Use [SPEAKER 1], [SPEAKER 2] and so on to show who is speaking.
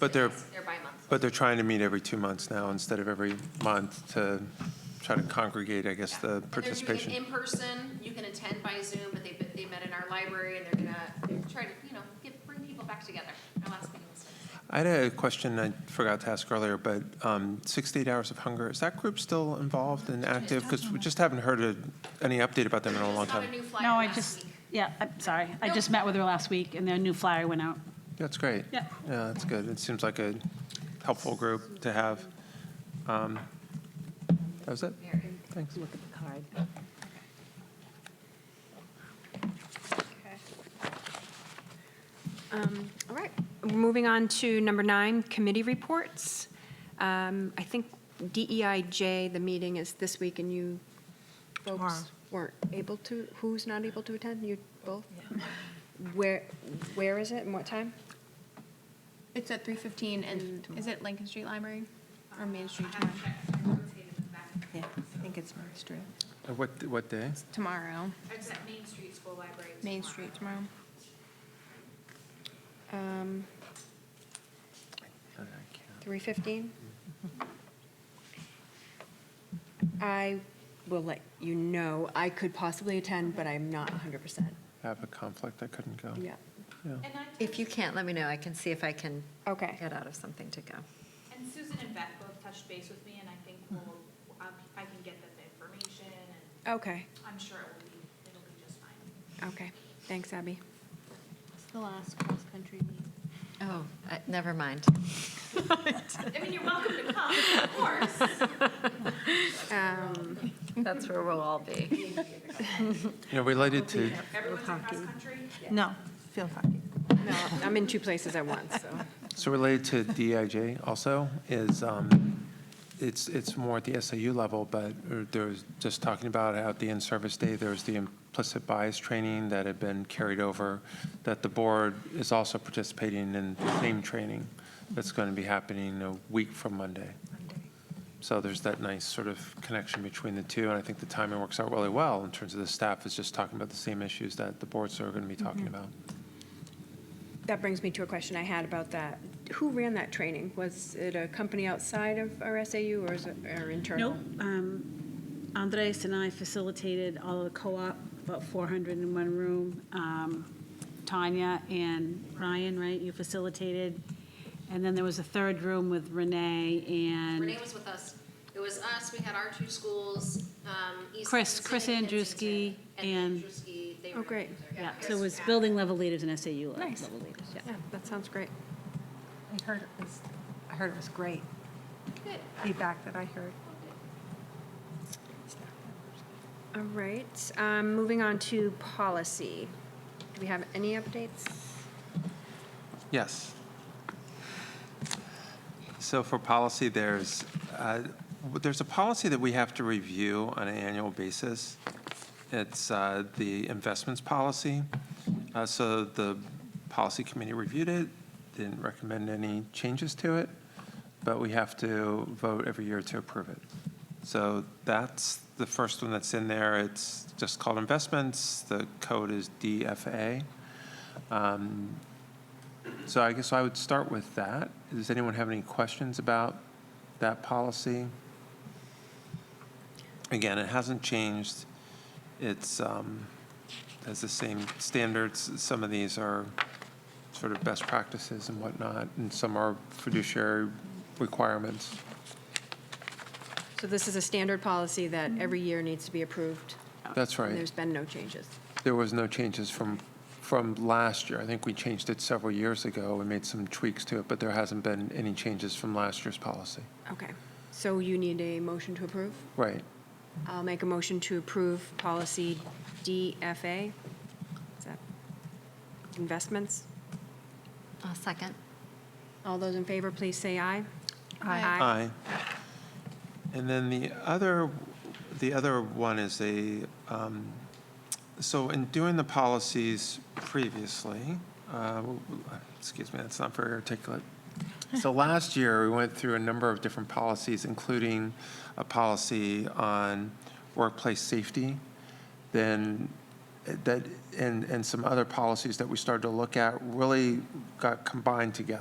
[SPEAKER 1] But they're-
[SPEAKER 2] They're bi-monthly.
[SPEAKER 1] But they're trying to meet every two months now instead of every month to try to congregate, I guess, the
[SPEAKER 2] And they're doing it in
[SPEAKER 1] participation.
[SPEAKER 2] person, you can attend by Zoom, but they, they met in our library and they're gonna try to, you know, get, bring people back together. Our last meeting was like-
[SPEAKER 1] I had a question I forgot to ask earlier, but um, 68 Hours of Hunger, is that group still involved and active? Because we just haven't heard a- any update about them in a long
[SPEAKER 2] Just got a
[SPEAKER 1] time.
[SPEAKER 2] new flyer
[SPEAKER 3] No, I
[SPEAKER 2] last
[SPEAKER 3] just,
[SPEAKER 2] week.
[SPEAKER 3] yeah, I'm sorry. I just met with her last week, and their new flyer went out.
[SPEAKER 1] That's great.
[SPEAKER 3] Yeah.
[SPEAKER 1] Yeah, that's good. It seems like a helpful group to have. Um, That was it? Thanks.
[SPEAKER 4] Look at the card. Um, All right, moving on to number nine, committee reports. Um, I think DEIJ, the meeting is this week, and you folks weren't able to, who's not able to attend? You both? Where, where is it and what time?
[SPEAKER 5] It's at three fifteen, and is it Lincoln Street Library or Main Street tomorrow?
[SPEAKER 6] Yeah, I think it's Main Street.
[SPEAKER 1] Uh, What, what day?
[SPEAKER 5] Tomorrow,
[SPEAKER 2] It's at Main Street School Library.
[SPEAKER 5] Main
[SPEAKER 2] tomorrow.
[SPEAKER 5] Street tomorrow.
[SPEAKER 4] Um, 3:15? I will let you know. I could possibly attend, but I'm not 100%.
[SPEAKER 1] I have a conflict. I couldn't go.
[SPEAKER 4] Yeah.
[SPEAKER 1] Yeah.
[SPEAKER 2] And I,
[SPEAKER 6] If you can't, let me know. I can see if I can
[SPEAKER 4] Okay.
[SPEAKER 6] get out of something to go.
[SPEAKER 7] And Susan and Beth both touched base with me, and I think we'll, I I can get them the information, and
[SPEAKER 4] Okay,
[SPEAKER 7] I'm sure it will be, it'll be just fine.
[SPEAKER 4] okay. Thanks, Abby.
[SPEAKER 5] It's the last cross-country meeting.
[SPEAKER 6] Oh, I- never mind.
[SPEAKER 7] I mean, you're welcome to come, of course.
[SPEAKER 4] Um,
[SPEAKER 6] That's where we'll all be.
[SPEAKER 1] You know, related to,
[SPEAKER 7] Everyone's across country.
[SPEAKER 6] No, field hockey.
[SPEAKER 4] No, I'm in two places at once, so.
[SPEAKER 1] So related to DIJ also is, um, it's, it's more at the SAU level, but there's, just talking about how at the in-service day, there was the implicit bias training that had been carried over, that the board is also participating in the same training that's going to be happening a week from Monday. So there's that nice sort of connection between the two, and I think the timing works out really well in terms of the staff is just talking about the same issues that the boards are going to be talking about.
[SPEAKER 4] That brings me to a question I had about that. Who ran that training? Was it a company outside of our SAU or is it our internal?
[SPEAKER 3] Nope. Um, Andres and I facilitated all of the co-op, about 400 in one room. Um, Tanya and Ryan, right, you facilitated. And then there was a third room with Renee and.
[SPEAKER 2] Renee was with us. It was us, we had our two schools, um, East.
[SPEAKER 3] Chris-
[SPEAKER 2] Lansing
[SPEAKER 3] Chris
[SPEAKER 2] and
[SPEAKER 3] Andrewski
[SPEAKER 2] Kinston.
[SPEAKER 3] and-
[SPEAKER 2] Andrewski, they
[SPEAKER 4] Oh,
[SPEAKER 2] were
[SPEAKER 4] great.
[SPEAKER 2] together.
[SPEAKER 3] Yeah, so it was building level leaders and SAU level
[SPEAKER 4] Nice.
[SPEAKER 3] leaders, yeah.
[SPEAKER 4] Yeah, that sounds great.
[SPEAKER 6] I heard it was, I heard it was great
[SPEAKER 2] Good.
[SPEAKER 6] feedback that I heard.
[SPEAKER 4] All right, um, moving on to policy. Do we have any updates?
[SPEAKER 1] Yes. So for policy, there's, uh, there's a policy that we have to review on an annual basis. It's uh, the investments policy. Uh, So the policy committee reviewed it, didn't recommend any changes to it, but we have to vote every year to approve it. So that's the first one that's in there. It's just called investments. The code is DFA. Um, so I guess I would start with that. Does anyone have any questions about that policy? Again, it hasn't changed. It's, um, has the same standards. Some of these are sort of best practices and whatnot, and some are fiduciary requirements.
[SPEAKER 4] So this is a standard policy that every year needs to be approved?
[SPEAKER 1] That's
[SPEAKER 4] And
[SPEAKER 1] right.
[SPEAKER 4] there's been no changes?
[SPEAKER 1] There was no changes from, from last year. I think we changed it several years ago. We made some tweaks to it, but there hasn't been any changes from last year's policy.
[SPEAKER 4] Okay, so you need a motion to approve?
[SPEAKER 1] Right.
[SPEAKER 4] I'll make a motion to approve policy DFA. Is that Investments.
[SPEAKER 6] A second.
[SPEAKER 4] All those in favor, please say aye.
[SPEAKER 6] Aye.
[SPEAKER 1] Aye. And then the other, the other one is a, um, so in doing the policies previously, uh, excuse me, that's not very articulate. So last year, we went through a number of different policies, including a policy on workplace safety, then eh, that, and, and some other policies that we started to look at really got combined together.